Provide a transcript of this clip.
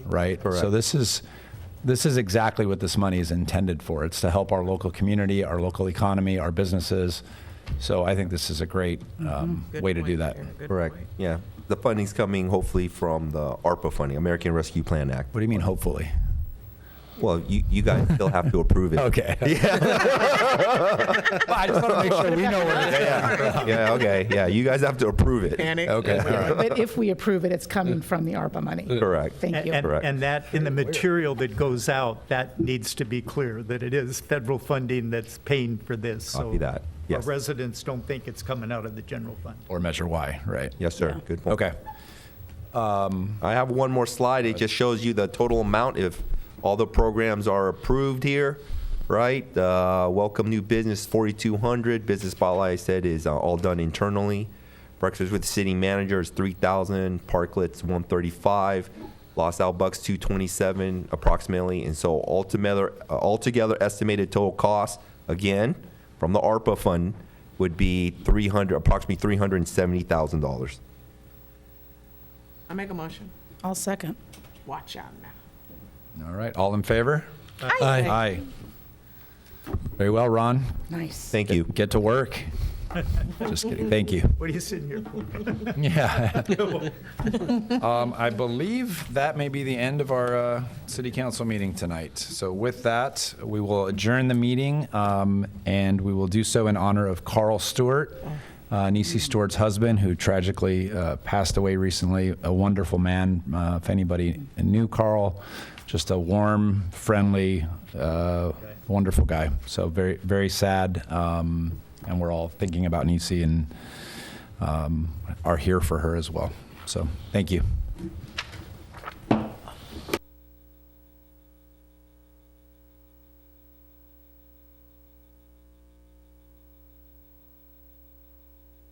right? Correct. So this is this is exactly what this money is intended for. It's to help our local community, our local economy, our businesses. So I think this is a great um, Mm-hmm. Good way to do point that. there. Good Correct. point. Yeah. The funding's coming hopefully from the ARPA funding, American Rescue Plan Act. What do you mean, hopefully? Well, you, you guys still have to approve it. Okay. Yeah. I just want to make sure we know where it's Yeah. Yeah. Okay. Yeah. You guys have to approve it. Panic. Okay. All right. But if we approve it, it's coming from the ARPA money. Correct. Thank you. And, Correct. and that, in the material that goes out, that needs to be clear, that it is federal funding that's paying for this. so Copy that. Our Yes. residents don't think it's coming out of the general fund. Or measure Y, right? Yes, sir. Good point. Okay. I have one more slide. It just shows you the total amount if all the programs are approved here, right? Uh, welcome new business, 4,200. Business spotlight I said is uh, all done internally. Breakfast with the city manager is 3,000. Parklets 135. Los Al Bucks 227 approximately. And so altogether, uh, altogether estimated total cost again from the ARPA fund would be 300, approximately 370 thousand dollars. I make a motion. I'll second. Watch out now. All right. All in favor? Aye. Very well, Ron. Nice. Thank you. Get to work. Just kidding. Thank you. What are you sitting here for? Yeah. Um, I believe that may be the end of our uh, city council meeting tonight. So with that, we will adjourn the meeting, um, and we will do so in honor of Carl Stewart, uh, Nisi Stewart's husband, who tragically uh, passed away recently. A wonderful man. Uh, If anybody knew Carl, just a warm, friendly, uh, wonderful guy. So very, very sad, um, and we're all E thinking about Nisi and um, are here for her as well. So thank you.